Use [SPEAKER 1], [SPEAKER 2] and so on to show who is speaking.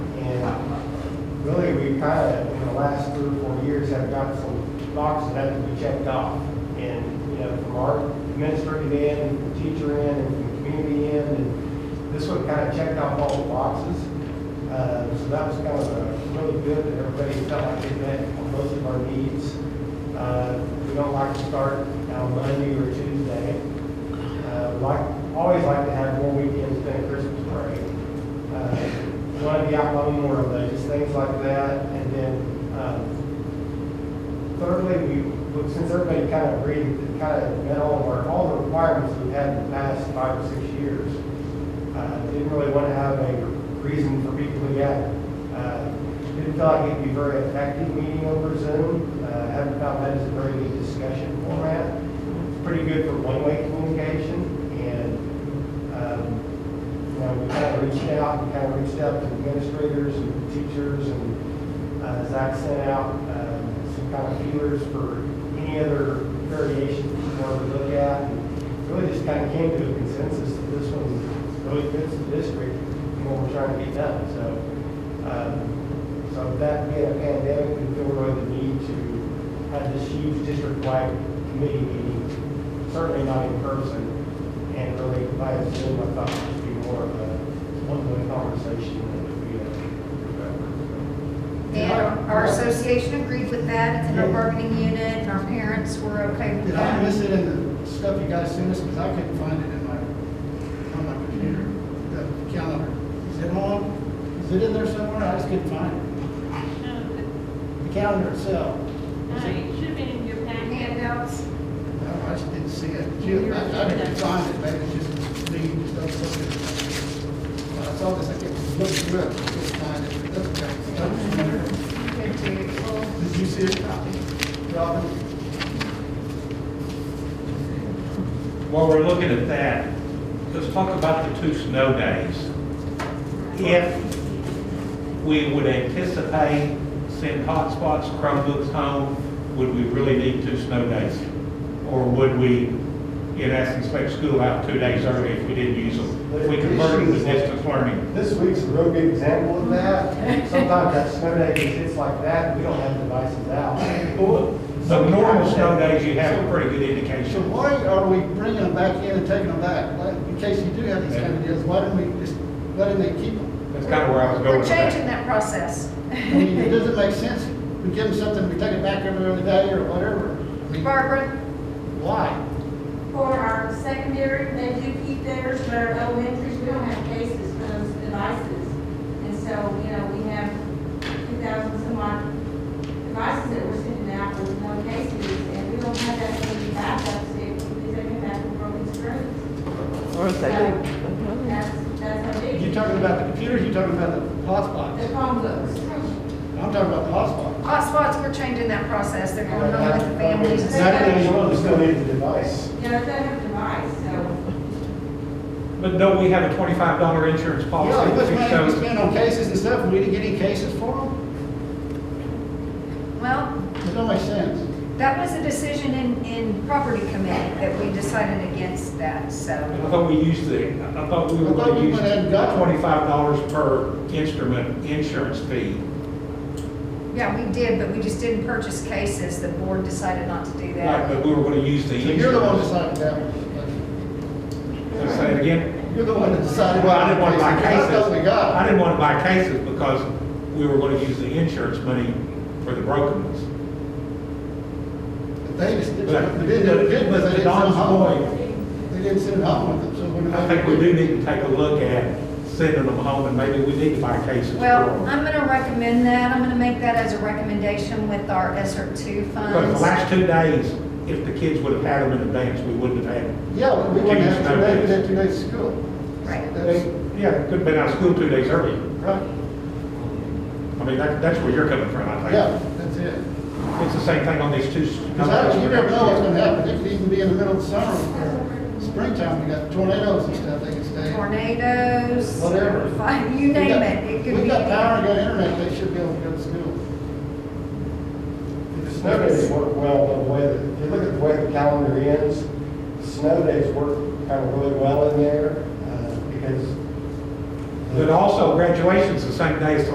[SPEAKER 1] kind of, in the last three or four years, have got some boxes that have to be checked off. And, you know, from our administrative end, and from teacher end, and from community end, and this one kind of checked off all the boxes. Uh, So that was kind of uh, really good, that everybody felt like they met most of our needs. Uh, We don't like to start on Monday or Tuesday. Uh, Like, always like to have more weekends than a Christmas break. Want to be out on more of those, things like that. And then um, thirdly, we, look, since everybody kind of agreed, kind of met all of our, all the requirements we've had in the past five or six years. Uh, Didn't really want to have a reason for people to get. uh, Didn't feel like it'd be very effective meeting over Zoom. Uh, Haven't found that as a very good discussion format. It's pretty good for one-way communication and, um, you know, we kind of reached out, we kind of reached out to administrators and teachers and uh, Zach sent out um, some kind of feelers for any other variations we wanted to look at. And Really just kind of came to a consensus that this one's really good for the district and what we're trying to get done. So, um, so with that being a pandemic, we feel really the need to have this huge district-wide committee meeting, certainly not in person, and really, by Zoom, I thought it would be more of a one-way conversation than it would be a.
[SPEAKER 2] And our- our association agreed with that, it's in our
[SPEAKER 1] Yeah.
[SPEAKER 2] bargaining unit, and our parents were okay with
[SPEAKER 3] Did I miss
[SPEAKER 2] that.
[SPEAKER 3] it in the stuff you guys sent us? Because I couldn't find it in my, on my computer, the calendar. Is it on? Is it in there somewhere? I just couldn't find
[SPEAKER 4] No,
[SPEAKER 3] it. The calendar itself.
[SPEAKER 4] no, it should have been in your packet.
[SPEAKER 2] Handouts,
[SPEAKER 3] No, I just didn't see it. Gee, I I couldn't find it. Maybe it's just me, just don't look at it. When I saw this, I kept looking through it, couldn't find it. It doesn't have it.
[SPEAKER 2] good to, well,
[SPEAKER 3] Did you see it, Robin?
[SPEAKER 5] While we're looking at that, let's talk about the two snow days. If we would anticipate send hotspots, Chromebooks home, would we really need two snow days? Or would we, in essence, take school out two days early if we didn't use them? If we converted to distance learning?
[SPEAKER 1] This week's a real good example of that. Sometimes that snow day just hits like that, we don't have devices out.
[SPEAKER 5] So normal snow days, you have a pretty good
[SPEAKER 3] So
[SPEAKER 5] indication.
[SPEAKER 3] why are we bringing them back in and taking them back? Like, In case you do have these kind of deals, why don't we just, why don't they keep them?
[SPEAKER 5] That's kind of where I was going
[SPEAKER 2] we're
[SPEAKER 5] with that.
[SPEAKER 2] changing that process.
[SPEAKER 3] I mean, it doesn't make sense. We give them something, we take it back every other day or whatever. I mean,
[SPEAKER 2] Barbara,
[SPEAKER 3] Why?
[SPEAKER 6] For our secondary, they do keep theirs, but our elementaries, we don't have cases for those devices. And so, you know, we have two thousand some odd devices that we're sending out with no cases, and we don't have that many backups, if we take them back with broken screens.
[SPEAKER 7] Or is that?
[SPEAKER 6] So, That's, that's our
[SPEAKER 3] You
[SPEAKER 6] big,
[SPEAKER 3] talking about the computers, you talking about the
[SPEAKER 6] the
[SPEAKER 3] hotspots?
[SPEAKER 6] Chromebooks.
[SPEAKER 3] I'm talking about the hotspots.
[SPEAKER 2] hotspots, we're changing that process, they're going on with the families. and stuff.
[SPEAKER 6] Exactly.
[SPEAKER 1] Exactly, you want to still need the device.
[SPEAKER 6] You know, they don't have a device, so,
[SPEAKER 5] But don't we have a twenty-five dollar insurance policy?
[SPEAKER 3] Yeah,
[SPEAKER 5] that
[SPEAKER 3] this
[SPEAKER 5] we
[SPEAKER 3] money we
[SPEAKER 5] show-
[SPEAKER 3] spent on cases and stuff, and we didn't get any cases for them?
[SPEAKER 2] Well,
[SPEAKER 3] It don't make sense.
[SPEAKER 2] that was a decision in, in property committee that we decided against that, so.
[SPEAKER 5] I thought we used the, I thought we were
[SPEAKER 3] I thought
[SPEAKER 5] going to
[SPEAKER 3] we
[SPEAKER 5] use
[SPEAKER 3] went ahead and got-
[SPEAKER 5] twenty-five dollars per instrument insurance fee.
[SPEAKER 2] Yeah, we did, but we just didn't purchase cases, the board decided not to do
[SPEAKER 5] Right,
[SPEAKER 2] that.
[SPEAKER 5] but we were going to use the
[SPEAKER 3] So you're the one deciding
[SPEAKER 5] insurance.
[SPEAKER 3] that.
[SPEAKER 5] Let's Say it again.
[SPEAKER 3] You're the one that decided.
[SPEAKER 5] Well, I didn't want to buy cases.
[SPEAKER 3] That's what we
[SPEAKER 5] I
[SPEAKER 3] got.
[SPEAKER 5] didn't want to buy cases because we were going to use the insurance money for the broken ones.
[SPEAKER 3] But They just,
[SPEAKER 5] But-
[SPEAKER 3] did- they didn't, they didn't
[SPEAKER 5] but
[SPEAKER 3] send
[SPEAKER 5] to
[SPEAKER 3] it
[SPEAKER 5] Don's
[SPEAKER 3] home.
[SPEAKER 5] point,
[SPEAKER 3] They didn't send it home with them, so what do
[SPEAKER 5] I think we do need to take a look at sending them home and maybe we need to buy cases for
[SPEAKER 2] Well,
[SPEAKER 5] them.
[SPEAKER 2] I'm gonna recommend that, I'm gonna make that as a recommendation with our ESER two
[SPEAKER 5] Because the
[SPEAKER 2] funds.
[SPEAKER 5] last two days, if the kids would have had them in advance, we wouldn't have had them.
[SPEAKER 3] Yeah, we- we wouldn't have
[SPEAKER 5] Two
[SPEAKER 3] two days,
[SPEAKER 5] days.
[SPEAKER 3] we had two days of school.
[SPEAKER 2] Right.
[SPEAKER 3] That's
[SPEAKER 5] Yeah, could have been out of school two days early.
[SPEAKER 3] right.
[SPEAKER 5] I mean, that, that's where you're coming from, I think.
[SPEAKER 3] Yeah, that's it.
[SPEAKER 5] It's the same thing on these two.
[SPEAKER 3] Because actually, you never know what's gonna happen. It could even be in the middle of summer, or springtime, we got tornadoes and stuff, they could stay.
[SPEAKER 2] Tornadoes.
[SPEAKER 3] Whatever.
[SPEAKER 2] fi- You name it, it could
[SPEAKER 3] We
[SPEAKER 2] be.
[SPEAKER 3] got
[SPEAKER 2] anything.
[SPEAKER 3] power, we got internet, they should be able to go to school.
[SPEAKER 1] The Snow days work well, the way, that if you look at the way the calendar ends, snow days work kind of really well in there, uh, because
[SPEAKER 5] But also graduation's the same day as the